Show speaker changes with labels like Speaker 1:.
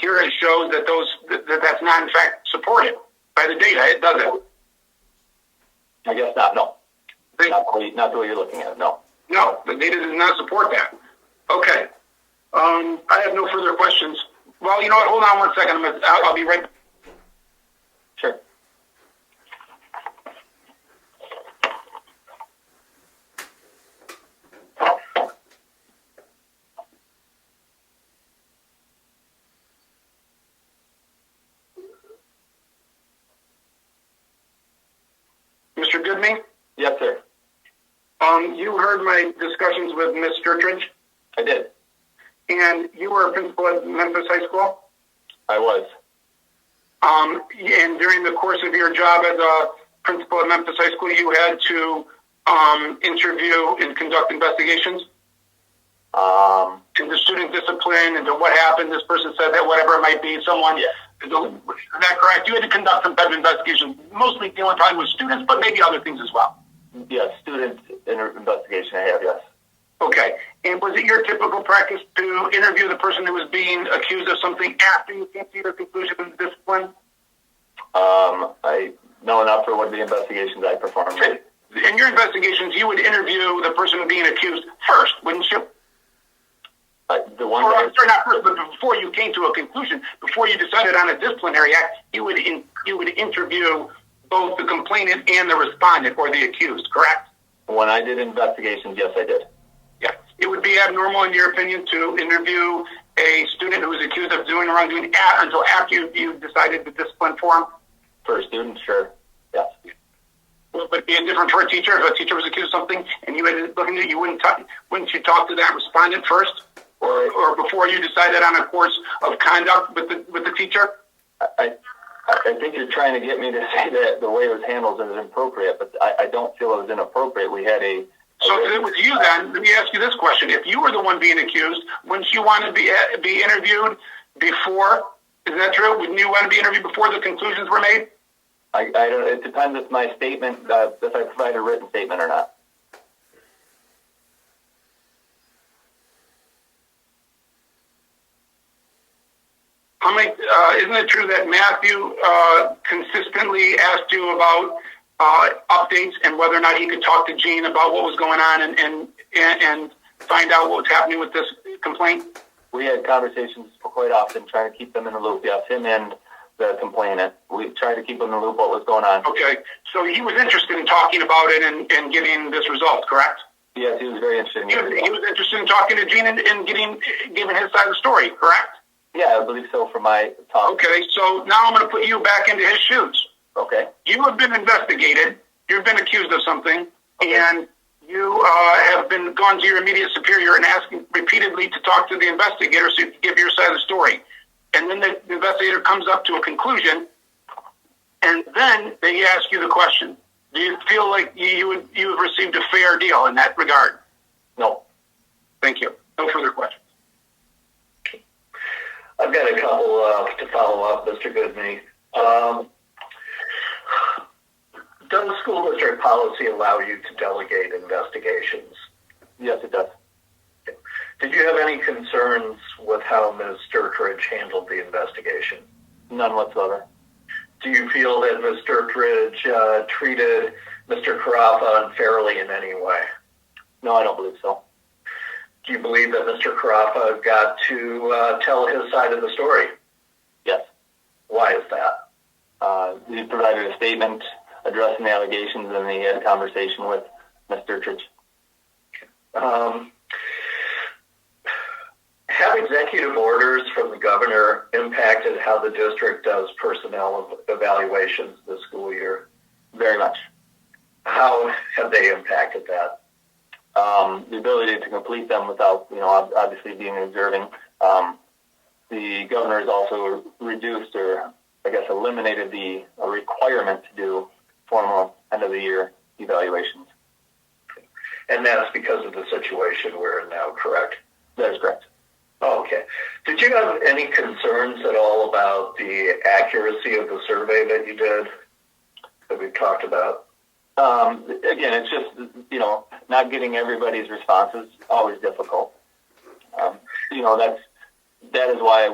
Speaker 1: here it shows that those that, that that's not in fact supported by the data. It doesn't.
Speaker 2: I guess not. No,
Speaker 1: They-
Speaker 2: not the way, not the way you're looking at it. No.
Speaker 1: no, the data does not support that. Okay. Um, I have no further questions. Well, you know what? Hold on one second. I'm gonna, I'll, I'll be right.
Speaker 2: Sure.
Speaker 1: Mr. Goodman,
Speaker 2: Yes, sir.
Speaker 1: um, you heard my discussions with Ms. Sturridge,
Speaker 2: I did.
Speaker 1: and you were a principal at Memphis High School.
Speaker 2: I was.
Speaker 1: Um, and during the course of your job as a principal at Memphis High School, you had to um, interview and conduct investigations
Speaker 2: Um,
Speaker 1: into student discipline, into what happened. This person said that, whatever it might be, someone.
Speaker 2: Yeah.
Speaker 1: Is that correct? You had to conduct some type of investigation, mostly dealing probably with students, but maybe other things as well.
Speaker 2: yeah, student inter- investigation. I have. Yes.
Speaker 1: Okay. And was it your typical practice to interview the person who was being accused of something after you came to your conclusion of discipline?
Speaker 2: Um, I no, not for one of the investigations I performed.
Speaker 1: In your investigations, you would interview the person being accused first, wouldn't you?
Speaker 2: I, the one.
Speaker 1: or
Speaker 2: that I-
Speaker 1: I'm sorry, not first, but before you came to a conclusion, before you decided on a disciplinary act, you would in, you would interview both the complainant and the respondent or the accused, correct?
Speaker 2: When I did investigations, yes, I did.
Speaker 1: Yeah. It would be abnormal, in your opinion, to interview a student who is accused of doing wrongdoing a until after you, you decided to discipline for him.
Speaker 2: For a student, sure. Yes.
Speaker 1: Would it be indifferent for a teacher if a teacher was accused of something and you had looking at you wouldn't talk, wouldn't you talk to that respondent first, or or before you decided on a course of conduct with the with the teacher?
Speaker 2: I, I I think you're trying to get me to say that the way it was handled is inappropriate, but I, I don't feel it was inappropriate. We had a.
Speaker 1: So if it was you then, let me ask you this question. If you were the one being accused, wouldn't you want to be, uh, be interviewed before? Is that true? Wouldn't you want to be interviewed before the conclusions were made?
Speaker 2: I, I don't. It depends if my statement, uh, if I provide a written statement or not.
Speaker 1: How many, uh, isn't it true that Matthew uh, consistently asked you about uh, updates and whether or not he could talk to Gene about what was going on and, and, and, and find out what was happening with this complaint?
Speaker 2: We had conversations quite often, trying to keep them in the loop. Yes, him and the complainant. We tried to keep them in the loop what was going on.
Speaker 1: Okay, so he was interested in talking about it and, and getting this result, correct?
Speaker 2: Yes, he was very interested in
Speaker 1: He was, he
Speaker 2: you.
Speaker 1: was interested in talking to Gene and, and getting giving his side of the story, correct?
Speaker 2: Yeah, I believe so. From my talk.
Speaker 1: Okay, so now I'm going to put you back into his shoes.
Speaker 2: Okay.
Speaker 1: You have been investigated. You've been accused of something,
Speaker 2: Okay.
Speaker 1: and you uh, have been gone to your immediate superior and asking repeatedly to talk to the investigator so you can give your side of the story. And then the investigator comes up to a conclusion, and then they ask you the question: Do you feel like you you, would, you have received a fair deal in that regard?
Speaker 2: No.
Speaker 1: Thank you. No further questions.
Speaker 3: I've got a couple uh, to follow up, Mr. Goodney. Um, does school district policy allow you to delegate investigations?
Speaker 2: Yes, it does.
Speaker 3: Did you have any concerns with how Ms. Sturtridge handled the investigation?
Speaker 2: None whatsoever.
Speaker 3: Do you feel that Ms. Sturtridge uh, treated Mr. Carafa unfairly in any way?
Speaker 2: No, I don't believe so.
Speaker 3: Do you believe that Mr. Carafa got to uh, tell his side of the story?
Speaker 2: Yes.
Speaker 3: Why is that?
Speaker 2: Uh, he provided a statement addressing the allegations, and he had a conversation with Mr. Church.
Speaker 3: um, have executive orders from the governor impacted how the district does personnel ev- evaluations this school year?
Speaker 2: Very much.
Speaker 3: How have they impacted that?
Speaker 2: Um, the ability to complete them without, you know, ob- obviously being observing. Um, the governor has also reduced or, I guess, eliminated the a requirement to do formal end of the year evaluations.
Speaker 3: And that's because of the situation we're in now, correct? Oh,
Speaker 2: That is correct.
Speaker 3: Okay. Did you have any concerns at all about the accuracy of the survey that you did, that we talked about?
Speaker 2: Um, again, it's just you know not getting everybody's responses always difficult. Um, you know that's that is why